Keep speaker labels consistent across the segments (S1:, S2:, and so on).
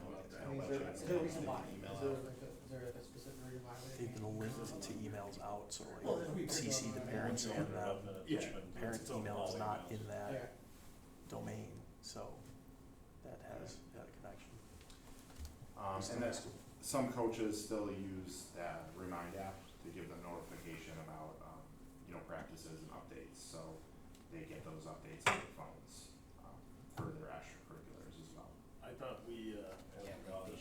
S1: Is there- is there a reason why? Is there like a, is there like a specific reason why? they-
S2: They've been linked to emails out, so
S1: Well,
S2: like
S1: then we-
S2: CC the parents
S1: Yeah.
S2: and the
S3: Yeah.
S2: parent
S3: It's all
S2: email is
S3: all
S2: not
S3: emails.
S2: in that
S1: Yeah.
S2: domain, so that has that connection.
S4: Um, and that's, some coaches still use that Remind app to give them notification about, um, you know, practices and updates, so they get those updates on their phones, um, for their extracurriculars as well.
S3: I thought we, uh, yeah, I thought we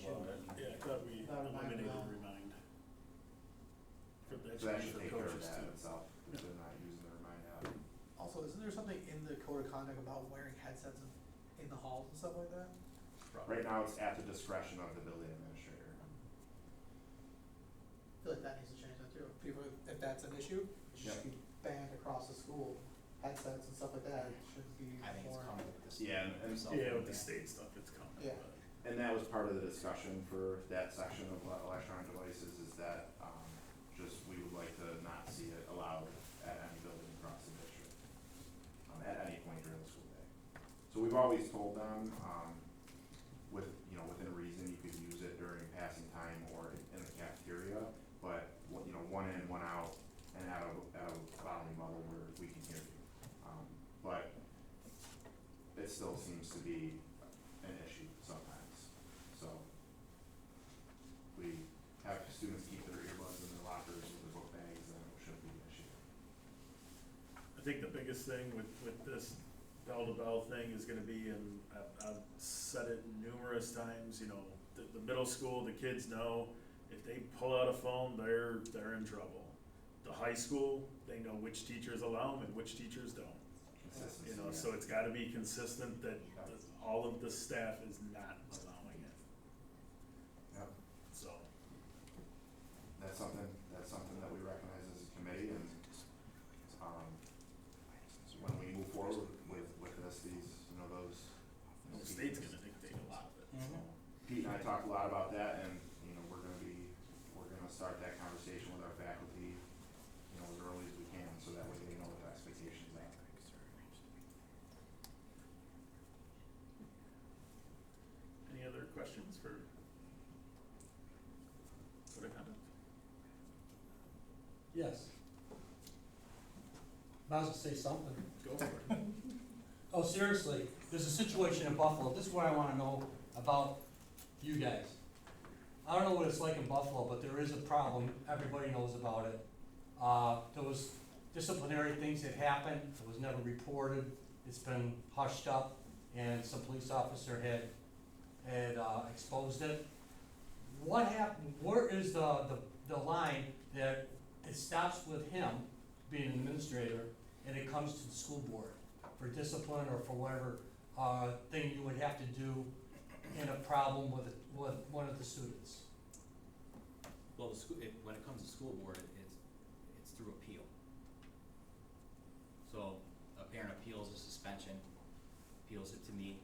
S1: Thought about
S3: eliminated
S1: that.
S3: remind. For the
S4: So that should
S3: extra
S4: take care of
S3: coaches
S4: that
S3: too.
S4: itself, if they're not using the Remind app.
S1: Also, isn't there something in the code of conduct about wearing headsets in, in the halls and stuff like that?
S4: Right now, it's at the discretion of the building administrator.
S1: I feel like that needs to change that too. People, if that's an issue, it should
S4: Yeah.
S1: be banned across the school. Headsets and stuff like that it shouldn't be
S5: I think it's
S1: worn.
S5: coming with this.
S4: Yeah, and- and-
S3: Yeah, with the state stuff, it's coming,
S1: Yeah.
S3: but-
S4: And that was part of the discussion for that section of le- electronic devices is that, um, just, we would like to not see it allowed at any building across the district. Um, at any point during the school day. So we've always told them, um, with, you know, within reason, you could use it during passing time or in the cafeteria. But, one- you know, one in, one out, and out of, out of bodily level where we can hear you. Um, but it still seems to be an issue sometimes, so. We have students keep their earbuds in their lockers with their book bags, and it shouldn't be an issue.
S3: I think the biggest thing with, with this bell to bell thing is gonna be, and I've, I've said it numerous times, you know, the, the middle school, the kids know, if they pull out a phone, they're, they're in trouble. The high school, they know which teachers allow them and which teachers don't,
S4: Consistency.
S3: you know, so it's gotta be consistent that the- all of the staff is not allowing it,
S4: Yep,
S3: so.
S4: that's something, that's something that we recognize as a committee, and, um, when we move forward with, with this, these, you know, those. you know,
S3: The state's gonna dictate a lot of it.
S6: Mm-hmm.
S4: Mm-hmm. Pete and I talked a lot about that and, you know, we're gonna be, we're gonna start that conversation with our faculty, you know, as early as we can, so that way they know what the expectations are.
S3: Any other questions for? What I kind
S6: Yes. Might as well say something.
S3: of, go for it.
S6: Oh, seriously, there's a situation in Buffalo, this is what I wanna know about you guys. I don't know what it's like in Buffalo, but there is a problem, everybody knows about it. Uh, there was disciplinary things that happened, it was never reported, it's been hushed up, and some police officer had, had, uh, exposed it. What happened, where is the, the, the line that it stops with him being an administrator, and it comes to the school board? for discipline or for whatever, uh, thing you would have to do in a problem with, with one of the students.
S5: Well, the school, it, when it comes to school board, it- it's, it's through appeal. So a parent appeals a suspension, appeals it to me.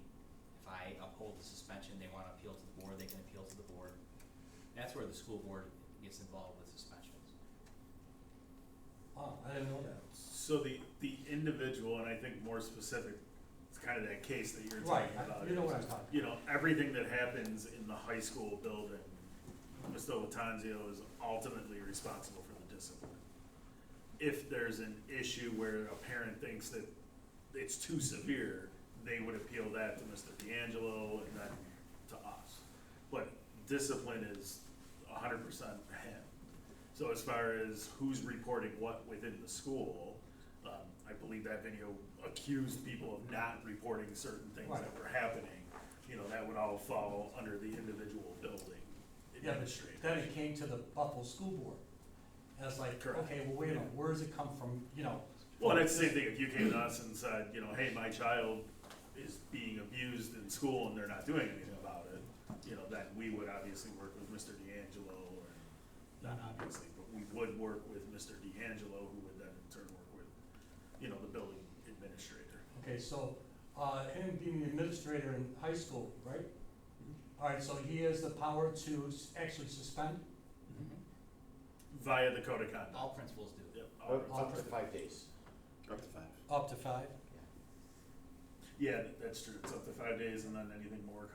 S5: If I uphold the suspension, they wanna appeal to the board, they can appeal to the board. That's where the school board gets involved with suspensions.
S6: Oh, I didn't know that.
S3: So the, the individual, and I think more specific, it's kind of that case that you're
S6: Right,
S3: talking
S6: I-
S3: about.
S6: you know
S3: is,
S6: what I'm talking
S3: You know, everything that happens in the high school building, Mr. Latanzio is ultimately responsible for the discipline. If there's an issue where a parent thinks that it's too severe, they would appeal that to Mr. D'Angelo and then to us. But discipline is hundred percent him. So as far as who's reporting what within the school, um, I believe that video accused people of not reporting certain things that
S6: Right.
S3: were happening. You know, that would all fall under the individual building
S6: Yeah, but
S3: administrator.
S6: then it came to the Buffalo School Board. And it's like,
S3: Correct.
S6: okay, well, wait a minute, where does it come from, you know?
S3: Well, that's the same thing, if you came to us and said, you know, hey, my child is being abused in school and they're not doing anything about it, you know, then we would obviously work with Mr. D'Angelo, or, not obviously, but we would work with Mr. D'Angelo, who would then in turn work with, you know, the building administrator.
S6: Okay, so, uh, him being the administrator in high school, right?
S3: Mm-hmm.
S6: Alright, so he has the power to s- actually suspend?
S3: Via the code of conduct.
S5: All principals do.
S3: Yep, all right.
S6: Up to
S7: five days.
S4: Up to five.
S6: Up to five?
S3: Yeah, that's true, it's up to five days and then anything more